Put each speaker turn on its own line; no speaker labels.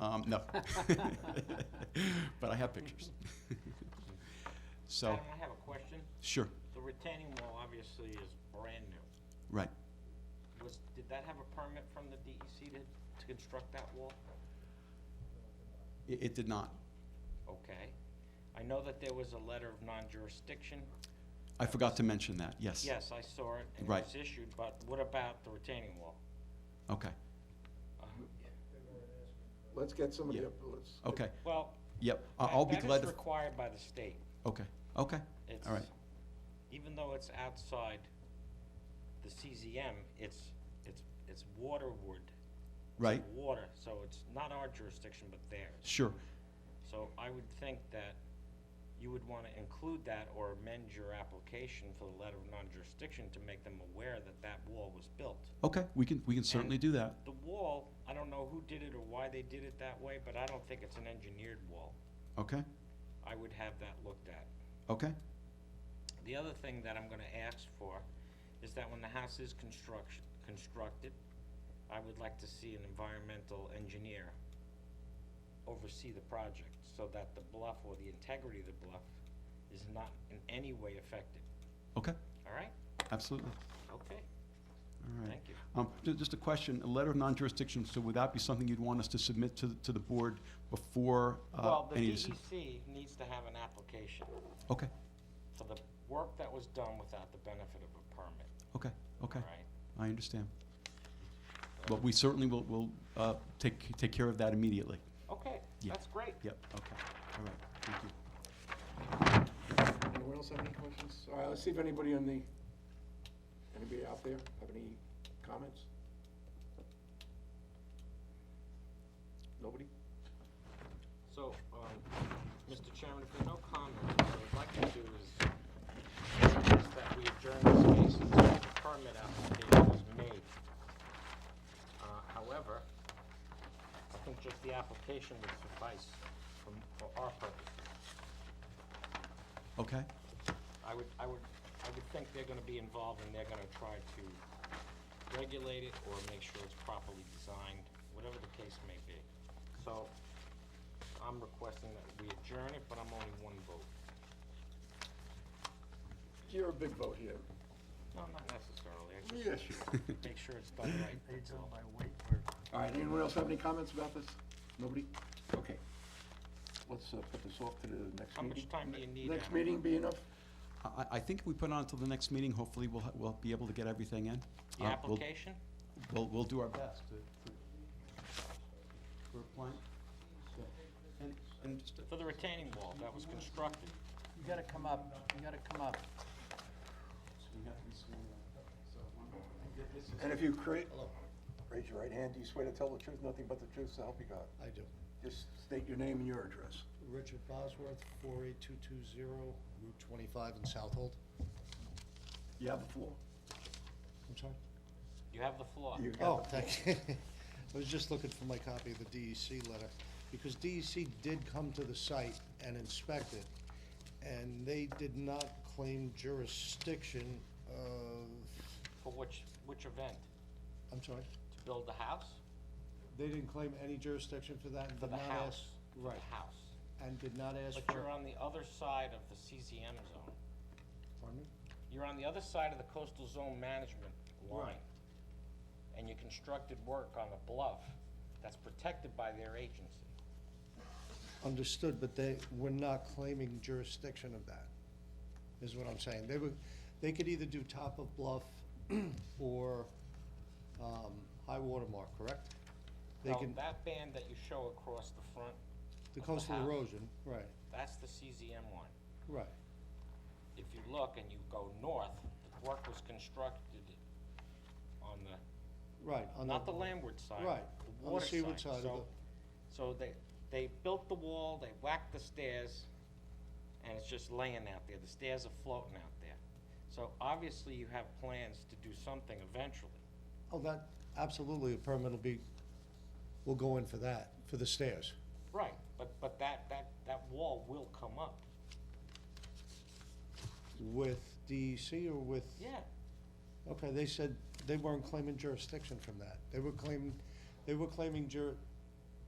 Um, no. But I have pictures. So,
Adam, I have a question.
sure,
The retaining wall obviously is brand new.
right.
Was, did that have a permit from the DEC to, to construct that wall?
It, it did not.
Okay. I know that there was a letter of non-jurisdiction.
I forgot to mention that, yes.
Yes, I saw it and it
Right.
was issued, but what about the retaining wall?
Okay,
Uh,
Let's get somebody
Yeah.
up, let's.
okay,
Well,
yep. I-
that
I'll be
that is
glad to,
required by the state.
okay, okay, all right.
It's- Even though it's outside the CZM, it's, it's, it's waterward. It's
Right.
Water, so it's not our jurisdiction, but theirs.
Sure,
So I would think that you would wanna include that or amend your application for the letter of non-jurisdiction to make them aware that that wall was built.
okay, we can, we can certainly do that.
The wall, I don't know who did it or why they did it that way, but I don't think it's an engineered wall.
Okay,
I would have that looked at.
okay,
The other thing that I'm gonna ask for is that when the house is construction, constructed, I would like to see an environmental engineer oversee the project so that the bluff or the integrity of the bluff is not in any way affected,
okay,
all right?
absolutely,
Okay,
all right.
thank you.
Um, ju- Just a question, a letter of non-jurisdiction, so would that be something you'd want us to submit to, the- to the board before? uh,
Well, the
any deci-
DEC needs to have an application
Okay,
for the work that was done without the benefit of a permit,
okay, okay,
all right?
I understand. But we certainly will, will uh, take, take care of that immediately.
Okay,
Yeah.
that's great.
Yep, okay, all right, thank you.
Anyone else have any questions? All right, let's see if anybody on the, anybody out there have any comments? Nobody?
So, um, Mr. Chairman, if there are no comments, what I'd like to do is suggest that we adjourn this case until the permit application is made. Uh, However, I think just the application would suffice from- for our purposes.
Okay,
I would, I would, I would think they're gonna be involved and they're gonna try to regulate it or make sure it's properly designed, whatever the case may be. So, I'm requesting that we adjourn it, but I'm only one vote.
You're a big vote here.
No, not necessarily, I
Yes, you are.
just make sure it's done right. that's all.
All right, anyone else have any comments about this? Nobody? Okay. Let's uh, put this off to the next meeting.
How much time do you need,
Next
Adam?
meeting be enough?
I- I, I think if we put it on until the next meeting, hopefully we'll, ha- we'll be able to get everything in.
The
Uh, we'll-
application?
We'll, we'll do our best to, to- we're applying. Yeah. And, and just,
For the retaining wall that was constructed.
You gotta come up, you gotta come up.
And if you create, raise your right hand, do you swear to tell the truth, nothing but the truth, so help you God?
I do.
Just state your name and your address.
Richard Bosworth, 48220, Route 25 in Southold.
You have the floor.
I'm sorry?
You have the floor.
You got the
Oh,
floor.
thank you. I was just looking for my copy of the DEC letter, because DEC did come to the site and inspect it, and they did not claim jurisdiction of,
For which, which event?
I'm sorry?
To build the house?
They didn't claim any jurisdiction for that and
For
did
the
not ask.
house? For
Right,
The house.
and did not ask
But
for.
you're on the other side of the CZM zone.
Pardon me?
You're on the other side of the coastal zone management line. And you constructed work on a bluff that's protected by their agency.
Understood, but they were not claiming jurisdiction of that, is what I'm saying. They were, they could either do top of bluff or um, high water mark, correct? They
Now,
can,
that band that you show across the front,
the
the
coastal
house.
erosion, right,
that's the CZM line.
right.
if you look and you go north, the work was constructed on the,
Right, on
not the
the,
landward side.
Right,
the
on the
water
seaward side of
So- So they, they built the wall, they whacked the stairs, and it's just laying out there, the stairs are floating out there. So obviously you have plans to do something eventually.
oh, that, absolutely, a permit will be, will go in for that, for the stairs.
Right, but, but that, that, that wall will come up.
With DEC or with?
Yeah,
Okay, they said they weren't claiming jurisdiction from that. They were claiming, they were claiming jur,